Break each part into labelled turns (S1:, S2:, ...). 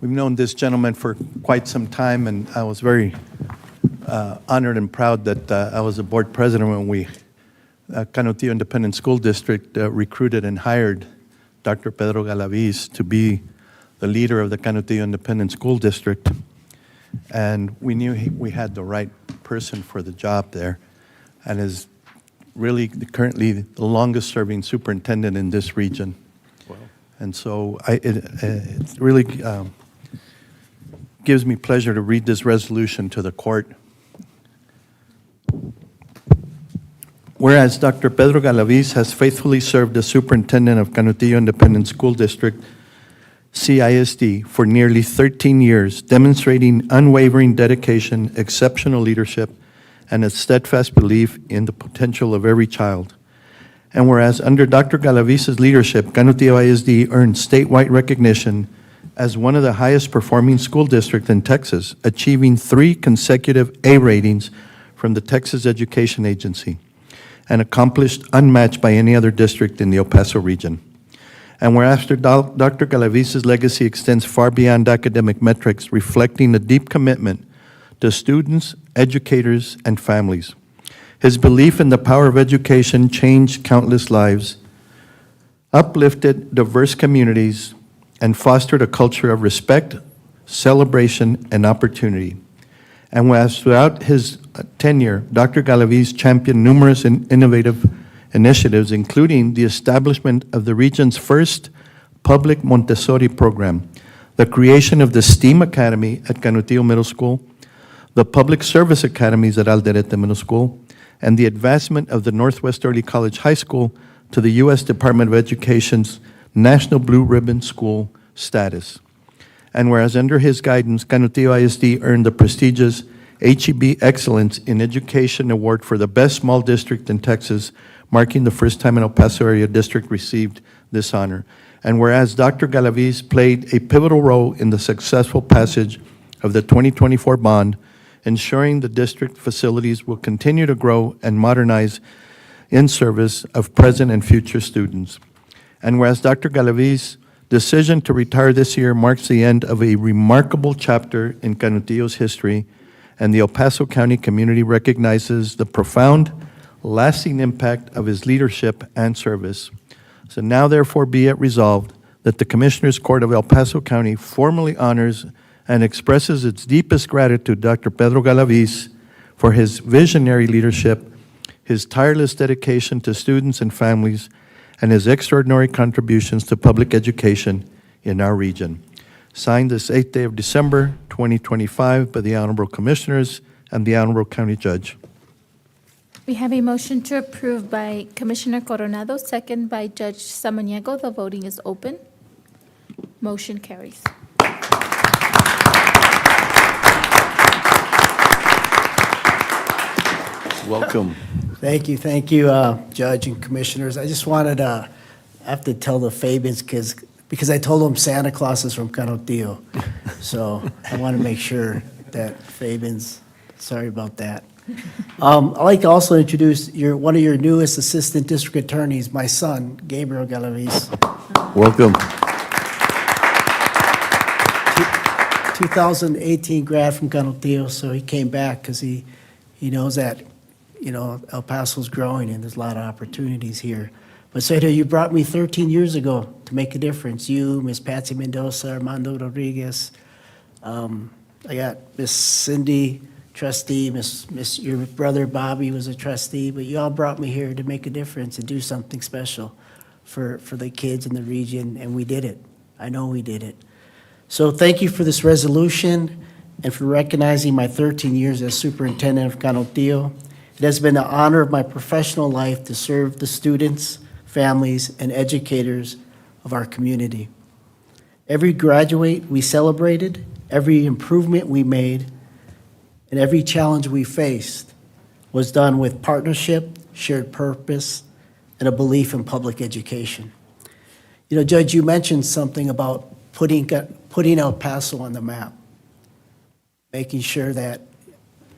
S1: We've known this gentleman for quite some time, and I was very uh, honored and proud that uh, I was a board president when we, uh, Cananeo Independent School District uh, recruited and hired Dr. Pedro Galaviz to be the leader of the Cananeo Independent School District. And we knew he- we had the right person for the job there, and is really currently the longest-serving superintendent in this region. And so I, it, uh, it really um, gives me pleasure to read this resolution to the court. Whereas Dr. Pedro Galaviz has faithfully served as superintendent of Canutillo Independent School District, CISD, for nearly 13 years, demonstrating unwavering dedication, exceptional leadership, and a steadfast belief in the potential of every child. And whereas under Dr. Galaviz's leadership, Canutillo ISD earned statewide recognition as one of the highest performing school districts in Texas, achieving three consecutive A ratings from the Texas Education Agency, an accomplished unmatched by any other district in the El Paso region. And whereas Dr. Dal- Dr. Galaviz's legacy extends far beyond academic metrics, reflecting a deep commitment to students, educators, and families. His belief in the power of education changed countless lives, uplifted diverse communities, and fostered a culture of respect, celebration, and opportunity. And whereas throughout his uh, tenure, Dr. Galaviz championed numerous in- innovative initiatives, including the establishment of the region's first public Montessori program, the creation of the STEAM Academy at Canutillo Middle School, the public service academies at Alderete Middle School, and the advancement of the Northwest Early College High School to the U.S. Department of Education's National Blue Ribbon School status. And whereas under his guidance, Canutillo ISD earned the prestigious HEB Excellence in Education Award for the Best Small District in Texas, marking the first time an El Paso area district received this honor. And whereas Dr. Galaviz played a pivotal role in the successful passage of the 2024 bond, ensuring the district facilities will continue to grow and modernize in service of present and future students. And whereas Dr. Galaviz's decision to retire this year marks the end of a remarkable chapter in Canutillo's history, and the El Paso County community recognizes the profound, lasting impact of his leadership and service. So now therefore be it resolved that the Commissioners Court of El Paso County formally honors and expresses its deepest gratitude to Dr. Pedro Galaviz for his visionary leadership, his tireless dedication to students and families, and his extraordinary contributions to public education in our region. Signed this 8th day of December, 2025, by the Honorable Commissioners and the Honorable County Judge.
S2: We have a motion to approve by Commissioner Coronado, second by Judge Samaniego. The voting is open. Motion carries.
S1: Welcome.
S3: Thank you, thank you, uh, Judge and Commissioners. I just wanted to, I have to tell the Fabins, because, because I told them Santa Claus is from Canutillo. So I want to make sure that Fabins, sorry about that. Um, I'd like to also introduce your, one of your newest Assistant District Attorneys, my son, Gabriel Galavis.
S1: Welcome.
S3: 2018 grad from Gunnelton, so he came back because he, he knows that, you know, El Paso's growing and there's a lot of opportunities here. But Seda, you brought me 13 years ago to make a difference. You, Miss Patsy Mendoza, Armando Rodriguez. Um, I got Miss Cindy, trustee, Miss, Miss, your brother Bobby was a trustee, but you all brought me here to make a difference and do something special for, for the kids in the region, and we did it. I know we did it. So thank you for this resolution and for recognizing my 13 years as superintendent of Canutillo. It has been the honor of my professional life to serve the students, families, and educators of our community. Every graduate we celebrated, every improvement we made, and every challenge we faced was done with partnership, shared purpose, and a belief in public education. You know, Judge, you mentioned something about putting, putting El Paso on the map, making sure that,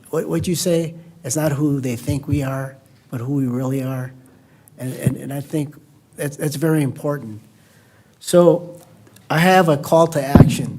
S3: what, what'd you say? It's not who they think we are, but who we really are. And, and, and I think that's, that's very important. So I have a call to action